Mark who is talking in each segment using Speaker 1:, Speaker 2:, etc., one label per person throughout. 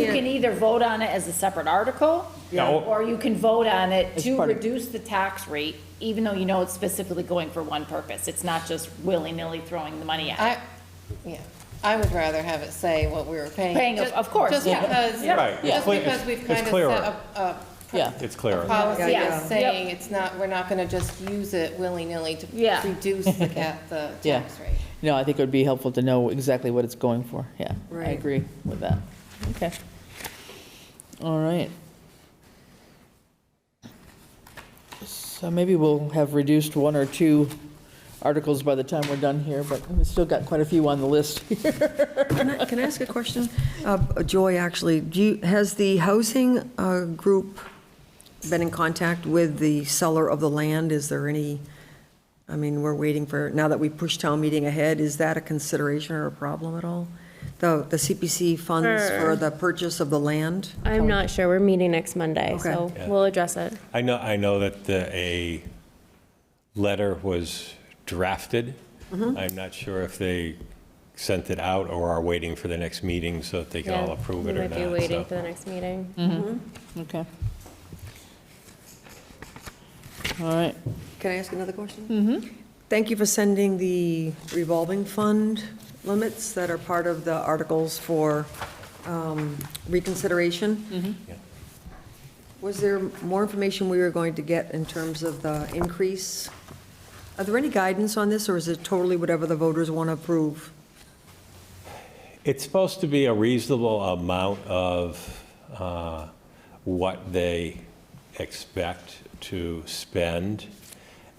Speaker 1: either vote on it as a separate article,
Speaker 2: Yeah.
Speaker 1: or you can vote on it
Speaker 2: As
Speaker 1: to
Speaker 2: part of-
Speaker 1: reduce the tax rate, even though you know it's specifically going for one purpose. It's not just willy-nilly throwing the money at it.
Speaker 3: I, yeah, I would rather have it say what we were paying.
Speaker 1: Paying, of-
Speaker 3: Just-
Speaker 1: of course,
Speaker 3: Just
Speaker 1: yeah.
Speaker 3: because,
Speaker 1: Yeah.
Speaker 2: Right, it's
Speaker 3: just
Speaker 2: clear- it's-
Speaker 3: because we've
Speaker 2: it's
Speaker 3: kind of
Speaker 2: clearer.
Speaker 3: set up a
Speaker 4: Yeah.
Speaker 2: It's clear.
Speaker 3: policy
Speaker 1: Yeah,
Speaker 3: that's
Speaker 1: yeah. Yep.
Speaker 3: saying it's not, we're not going to just use it willy-nilly to
Speaker 1: Yeah.
Speaker 3: reduce the cap, the
Speaker 4: Yeah.
Speaker 3: tax rate.
Speaker 4: No, I think it would be helpful to know exactly what it's going for, yeah. I
Speaker 2: Right.
Speaker 4: agree with that. Okay. All right. So maybe we'll have reduced one or two articles by the time we're done here, but we've still got quite a few on the list.
Speaker 5: Can I- can I ask a question? Uh, Joy, actually, do you, has the housing uh, group been in contact with the seller of the land? Is there any, I mean, we're waiting for, now that we push town meeting ahead, is that a consideration or a problem at all? The, the CPC funds for the purchase of the land?
Speaker 6: I'm not sure. We're meeting next Monday, so
Speaker 5: Okay.
Speaker 2: Yeah.
Speaker 6: we'll address it.
Speaker 2: I know, I know that the- a letter was drafted.
Speaker 6: Mm-hmm.
Speaker 2: I'm not sure if they sent it out or are waiting for the next meeting so that they can all
Speaker 6: Yeah,
Speaker 2: approve
Speaker 6: we
Speaker 2: it or
Speaker 6: Might be
Speaker 2: not.
Speaker 6: waiting for
Speaker 2: so.
Speaker 6: the next meeting.
Speaker 4: Okay. All right.
Speaker 5: Can I ask another question? Mm-hmm. Thank you for sending the revolving fund limits that are part of the articles for um, reconsideration.
Speaker 2: Yeah.
Speaker 5: Was there more information we were going to get in terms of the increase? Are there any guidance on this, or is it totally whatever the voters want to approve?
Speaker 2: It's supposed to be a reasonable amount of uh, what they expect to spend.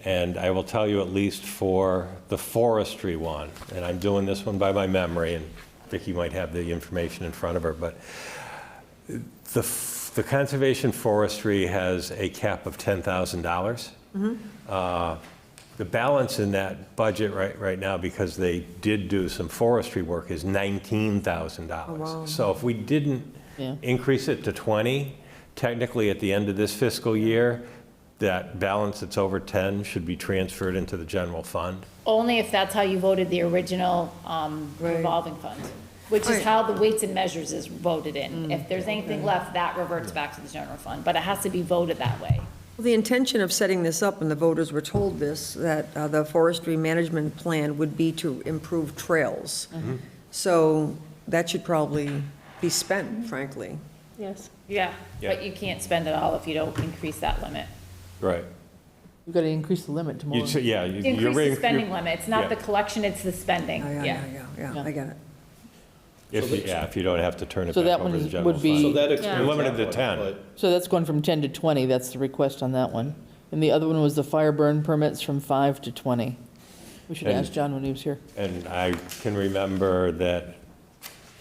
Speaker 2: And I will tell you at least for the forestry one, and I'm doing this one by my memory, and Vicki might have the information in front of her, but the, f- the conservation forestry has a cap of $10,000. Uh, The balance in that budget right, right now, because they did do some forestry work, is $19,000. So if we didn't
Speaker 4: Yeah.
Speaker 2: increase it to 20, technically at the end of this fiscal year, that balance that's over 10 should be transferred into the general fund.
Speaker 1: Only if that's how you voted the original um, revolving fund, which is
Speaker 5: Right.
Speaker 1: how the weights and measures is voted
Speaker 2: Mm.
Speaker 1: in. If there's anything left, that reverts back to the general fund, but it has to be voted that way.
Speaker 5: Well, The intention of setting this up, and the voters were told this, that uh, the forestry management plan would be to improve trails. So that should probably be spent, frankly.
Speaker 6: Yes.
Speaker 1: Yeah. But
Speaker 2: Yeah.
Speaker 1: you can't spend it all if you don't increase that limit.
Speaker 2: Right.
Speaker 4: We've got to increase the limit tomorrow.
Speaker 2: You, should- yeah. you- you're
Speaker 1: Increase
Speaker 2: raising-
Speaker 1: the spending limit. It's
Speaker 2: yeah.
Speaker 1: not the collection, it's the spending,
Speaker 5: Oh,
Speaker 1: yeah.
Speaker 5: Yeah, yeah, yeah, I get it.
Speaker 2: If, you- yeah, if you don't have to turn it
Speaker 4: So
Speaker 2: back
Speaker 4: that
Speaker 2: over to
Speaker 4: one
Speaker 2: the
Speaker 4: would
Speaker 2: general fund.
Speaker 4: be-
Speaker 7: So that
Speaker 2: You're
Speaker 7: explains.
Speaker 2: limited
Speaker 7: that
Speaker 2: to 10.
Speaker 7: one, but-
Speaker 4: So that's going from 10 to 20, that's the request on that one. And the other one was the fire burn permits from 5 to 20. We should
Speaker 2: And-
Speaker 4: ask John when he was here.
Speaker 2: And I can remember that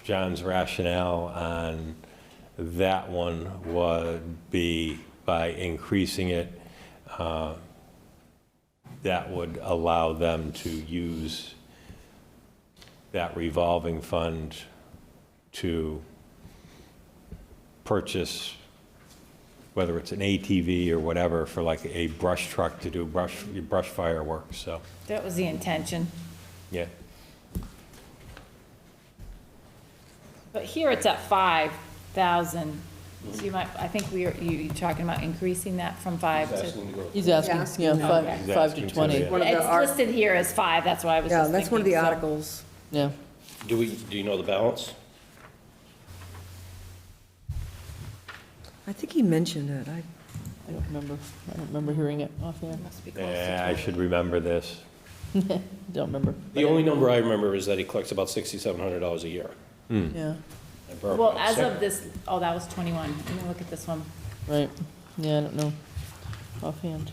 Speaker 2: John's rationale on that one would be by increasing it, uh, that would allow them to use that revolving fund to purchase, whether it's an ATV or whatever, for like a brush truck to do brush, brush fireworks, so,
Speaker 1: That was the intention.
Speaker 2: yeah.
Speaker 1: But here it's at five thousand, so you might, I think we are, you, you talking about increasing that from five to.
Speaker 4: He's asking, yeah,
Speaker 2: He's
Speaker 4: 5, 5 to
Speaker 2: asking to,
Speaker 4: 20,
Speaker 2: yeah.
Speaker 5: One of the
Speaker 1: It's
Speaker 5: art-
Speaker 1: listed here as five, that's why I was
Speaker 5: Yeah,
Speaker 1: just
Speaker 5: that's one of the
Speaker 1: thinking, so-
Speaker 5: articles.
Speaker 4: yeah.
Speaker 7: Do we, do you know the balance?
Speaker 5: I think he mentioned it. I
Speaker 4: I don't remember, I don't remember hearing it offhand,
Speaker 2: Yeah, I should remember this.
Speaker 4: don't remember,
Speaker 7: The only number I remember is that he collects about sixty-seven hundred dollars a year.
Speaker 4: yeah,
Speaker 7: at Burbank.
Speaker 1: Well, as
Speaker 7: So-
Speaker 1: of this, oh, that was twenty-one, let me look at this one.
Speaker 4: right, yeah, I don't know offhand.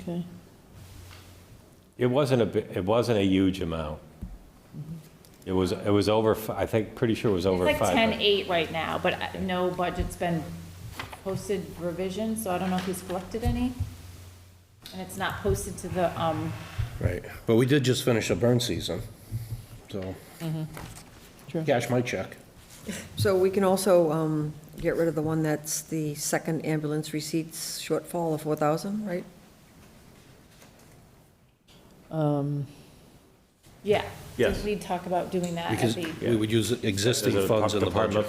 Speaker 4: Okay,
Speaker 2: It wasn't a, bi- it wasn't a huge amount. It was, it was over, f- I think, pretty sure it was
Speaker 1: It's
Speaker 2: over
Speaker 1: like
Speaker 2: five.
Speaker 1: ten-eight right now, but uh, no budget's been posted revision, so I don't know if he's collected any. And it's not posted to the, um,
Speaker 7: Right, but we did just finish a burn season, so.
Speaker 1: Mm-hmm.
Speaker 4: True.
Speaker 7: Cash my check.
Speaker 5: So we can also um, get rid of the one that's the second ambulance receipts shortfall of 4,000, right?
Speaker 4: um,
Speaker 1: yeah.
Speaker 2: Yes.
Speaker 1: Did we talk about doing that at
Speaker 7: Because
Speaker 1: the-
Speaker 7: we would use existing
Speaker 2: There's a
Speaker 7: funds in the
Speaker 2: department
Speaker 7: budget.